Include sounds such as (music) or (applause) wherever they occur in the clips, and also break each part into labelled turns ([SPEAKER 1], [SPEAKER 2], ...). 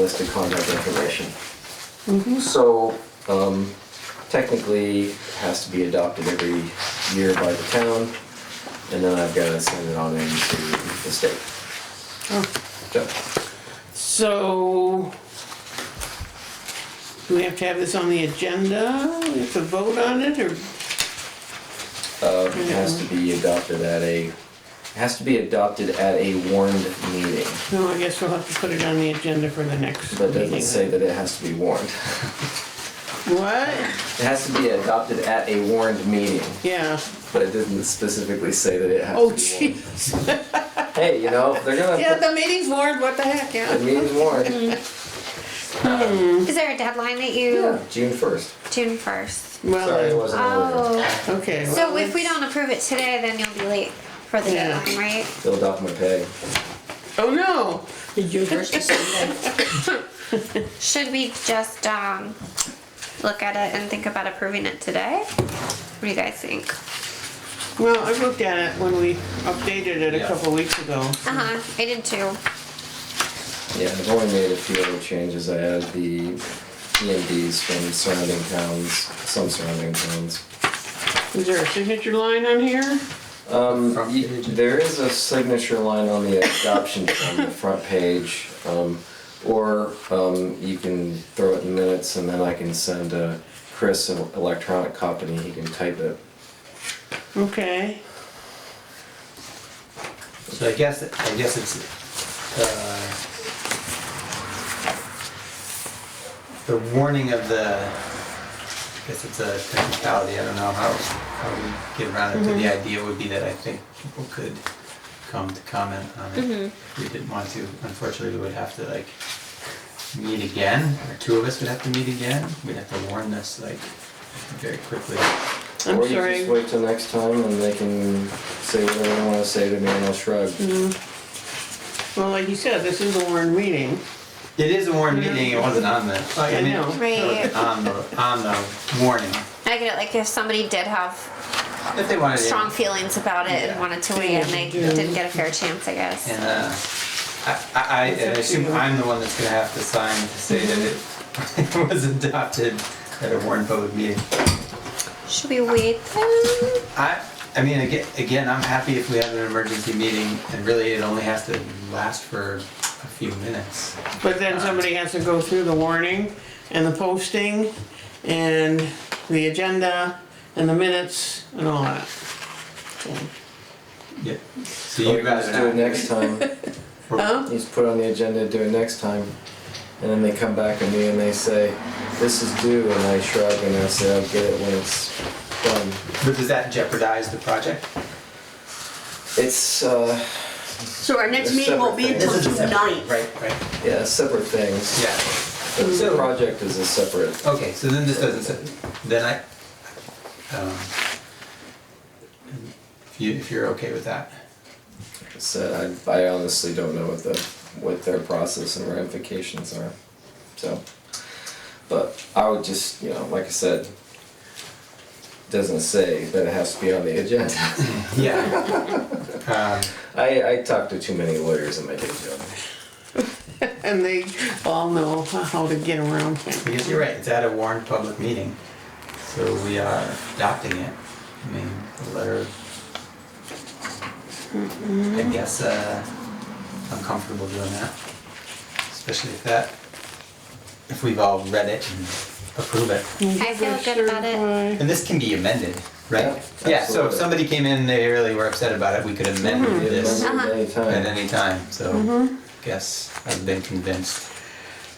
[SPEAKER 1] listed contact information.
[SPEAKER 2] Mm-hmm.
[SPEAKER 1] So um, technically, it has to be adopted every year by the town, and then I've got to send it on in to the state. So,
[SPEAKER 2] So, do we have to have this on the agenda? We have to vote on it, or,
[SPEAKER 1] uh, It has to
[SPEAKER 2] Mm-hmm.
[SPEAKER 1] be adopted at a, it has to be adopted at a warned meeting,
[SPEAKER 2] no, I guess we'll have to put it on the agenda for the next
[SPEAKER 1] but it
[SPEAKER 2] meeting.
[SPEAKER 1] doesn't say that it has to be warned.
[SPEAKER 2] What?
[SPEAKER 1] It has to be adopted at a warned meeting,
[SPEAKER 2] Yeah.
[SPEAKER 1] but it didn't specifically say that it has
[SPEAKER 2] Oh,
[SPEAKER 1] to be warned.
[SPEAKER 2] jeez. (laughs)
[SPEAKER 1] Hey, you know, they're gonna
[SPEAKER 2] Yeah, Mm-hmm.
[SPEAKER 1] put
[SPEAKER 2] the meeting's warned, what the heck,
[SPEAKER 1] the
[SPEAKER 2] yeah.
[SPEAKER 1] meeting's warned,
[SPEAKER 3] Is there a deadline that you
[SPEAKER 1] yeah, June first.
[SPEAKER 3] June first?
[SPEAKER 1] Sorry, it
[SPEAKER 2] Well,
[SPEAKER 1] wasn't earlier.
[SPEAKER 3] Oh,
[SPEAKER 2] okay.
[SPEAKER 3] so
[SPEAKER 2] well,
[SPEAKER 3] if we
[SPEAKER 2] let's-
[SPEAKER 3] don't approve it today, then you'll be late for the
[SPEAKER 2] Yeah.
[SPEAKER 3] deadline, right?
[SPEAKER 1] Filled off my pay.
[SPEAKER 2] Oh, no.
[SPEAKER 4] June first is Sunday.
[SPEAKER 3] Should we just um, look at it and think about approving it today? What do you guys think?
[SPEAKER 2] Well, I looked at it when we updated it a
[SPEAKER 1] Yeah.
[SPEAKER 2] couple weeks ago.
[SPEAKER 3] Uh huh. I did too.
[SPEAKER 1] Yeah, I've only made a few other changes. I added the EMDs from surrounding towns, some surrounding towns.
[SPEAKER 2] Is there a signature line on here?
[SPEAKER 1] Um,
[SPEAKER 4] Front
[SPEAKER 1] y-
[SPEAKER 4] page.
[SPEAKER 1] there is a signature line on the adoption (coughs) on the front page, um, or, um, you can throw it in minutes and then I can send, uh, Chris an electronic copy and he can type it.
[SPEAKER 2] Okay.
[SPEAKER 4] So I guess, I guess it's, uh, the warning of the, I guess it's a technicality, I don't know how, how we get around it, but the idea would be that I think people could come to comment on it. If we didn't want to, unfortunately, we would have to like meet again, or two of us would have to meet again, we'd have to warn this like very quickly.
[SPEAKER 2] I'm
[SPEAKER 1] Or you
[SPEAKER 2] sorry.
[SPEAKER 1] just wait till next time and they can say whatever they wanna say to me and I'll shrug.
[SPEAKER 2] Well, like you said, this is a warned meeting.
[SPEAKER 4] It is a warned meeting, it wasn't on the,
[SPEAKER 2] I
[SPEAKER 4] I mean,
[SPEAKER 2] know.
[SPEAKER 3] Right.
[SPEAKER 4] on the, on the warning.
[SPEAKER 3] I get it. Like if somebody did have
[SPEAKER 4] If they wanted
[SPEAKER 3] strong
[SPEAKER 4] it.
[SPEAKER 3] feelings about it and
[SPEAKER 4] Yeah.
[SPEAKER 3] wanted to weigh in, they
[SPEAKER 2] Yeah.
[SPEAKER 3] didn't get a fair chance, I guess.
[SPEAKER 4] And, uh, I, I, I
[SPEAKER 2] It's up to
[SPEAKER 4] assume
[SPEAKER 2] you.
[SPEAKER 4] I'm the one that's gonna have to sign to say that it, (laughs) it was adopted at a warned public meeting.
[SPEAKER 3] Should we wait then?
[SPEAKER 4] I, I mean, again, again, I'm happy if we have an emergency meeting and really it only has to last for a few minutes.
[SPEAKER 2] But then somebody has to go through the warning and the posting and the agenda and the minutes and all that.
[SPEAKER 4] Yeah, so
[SPEAKER 1] Or
[SPEAKER 4] you guys
[SPEAKER 1] just
[SPEAKER 4] are
[SPEAKER 1] Do it
[SPEAKER 4] not-
[SPEAKER 1] next
[SPEAKER 4] (laughs)
[SPEAKER 1] time.
[SPEAKER 4] or-
[SPEAKER 2] Huh?
[SPEAKER 1] He's put on the agenda to do it next time. And then they come back to me and they say, this is due, and I shrug and I say, I'll get it when it's done.
[SPEAKER 4] But does that jeopardize the project?
[SPEAKER 1] It's, uh,
[SPEAKER 5] So our next
[SPEAKER 1] They're
[SPEAKER 5] meeting won't be
[SPEAKER 1] separate
[SPEAKER 5] until
[SPEAKER 4] things.
[SPEAKER 5] June ninth.
[SPEAKER 4] Right, right,
[SPEAKER 1] yeah, separate things.
[SPEAKER 4] yeah.
[SPEAKER 1] But The project is a separate,
[SPEAKER 4] Okay, so then this doesn't, say- then I, um, if you, if you're okay with that.
[SPEAKER 1] so I, I honestly don't know what the, what their process and ramifications are, so. But I would just, you know, like I said, doesn't say that it has to be on the agenda. (laughs)
[SPEAKER 4] Yeah. Um,
[SPEAKER 1] I, I talk to too many lawyers in my day job.
[SPEAKER 2] And they all know how to get around
[SPEAKER 4] I
[SPEAKER 2] things.
[SPEAKER 4] guess you're right, it's at a warned public meeting, so we are adopting it. I mean, the letter. I guess, uh, I'm comfortable doing that, especially if that, if we've all read it and approve it.
[SPEAKER 3] I feel good about it.
[SPEAKER 4] And this can be amended, right?
[SPEAKER 1] Yeah,
[SPEAKER 4] Yeah, so if
[SPEAKER 1] absolutely. Mm-hmm.
[SPEAKER 4] somebody came in, they really were upset about it, we could amend this
[SPEAKER 1] Remember at any
[SPEAKER 4] at
[SPEAKER 1] time.
[SPEAKER 4] any time, so
[SPEAKER 1] Mm-hmm.
[SPEAKER 4] guess I've been convinced.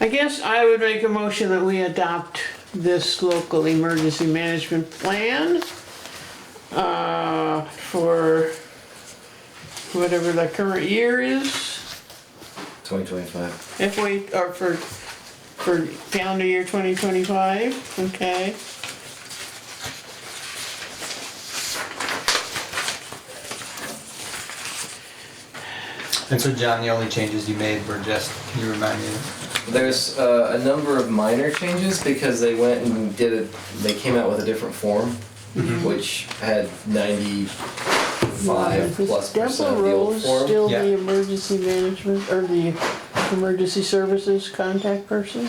[SPEAKER 2] I guess I would make a motion that we adopt this local emergency management plan uh, for whatever the current year is.
[SPEAKER 1] 2025.
[SPEAKER 2] If we, or for, for calendar year twenty twenty-five, okay.
[SPEAKER 4] And so John, the only changes you made were just, can you remind me?
[SPEAKER 1] There's uh, a number of minor changes because they went and did it, they came out with a different form, which had 95 plus percent of the old form.
[SPEAKER 4] the Yeah.
[SPEAKER 2] emergency management, or the emergency services contact person?